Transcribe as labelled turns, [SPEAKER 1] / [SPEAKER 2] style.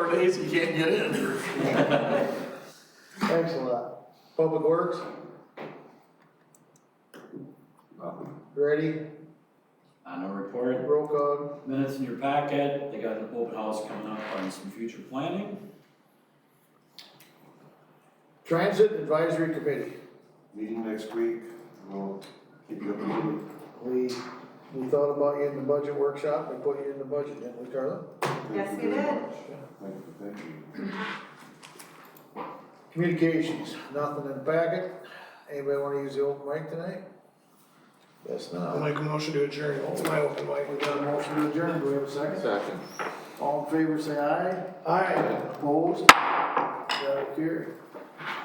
[SPEAKER 1] ways you can't get in.
[SPEAKER 2] Thanks a lot. Public Works, ready,
[SPEAKER 3] Uh, no report.
[SPEAKER 2] roll call.
[SPEAKER 3] Minutes in your packet. They got an open house coming up on some future planning.
[SPEAKER 2] Transit Advisory Committee,
[SPEAKER 4] Meeting next week, we'll keep you up to date.
[SPEAKER 2] we, we thought about you in the budget workshop, we put you in the budget, didn't we, Carla?
[SPEAKER 4] Thank
[SPEAKER 5] Yes,
[SPEAKER 4] you
[SPEAKER 5] we
[SPEAKER 4] very
[SPEAKER 5] did.
[SPEAKER 4] much. Thank you, thank you.
[SPEAKER 2] Communications, nothing in packet. Anybody wanna use the open mic tonight? Guess not. I'll make a motion to adjourn. It's my open mic. We got a motion to adjourn, do we have a second?
[SPEAKER 4] Second.
[SPEAKER 2] All in favor, say aye. Aye. Opposed? Got it carried.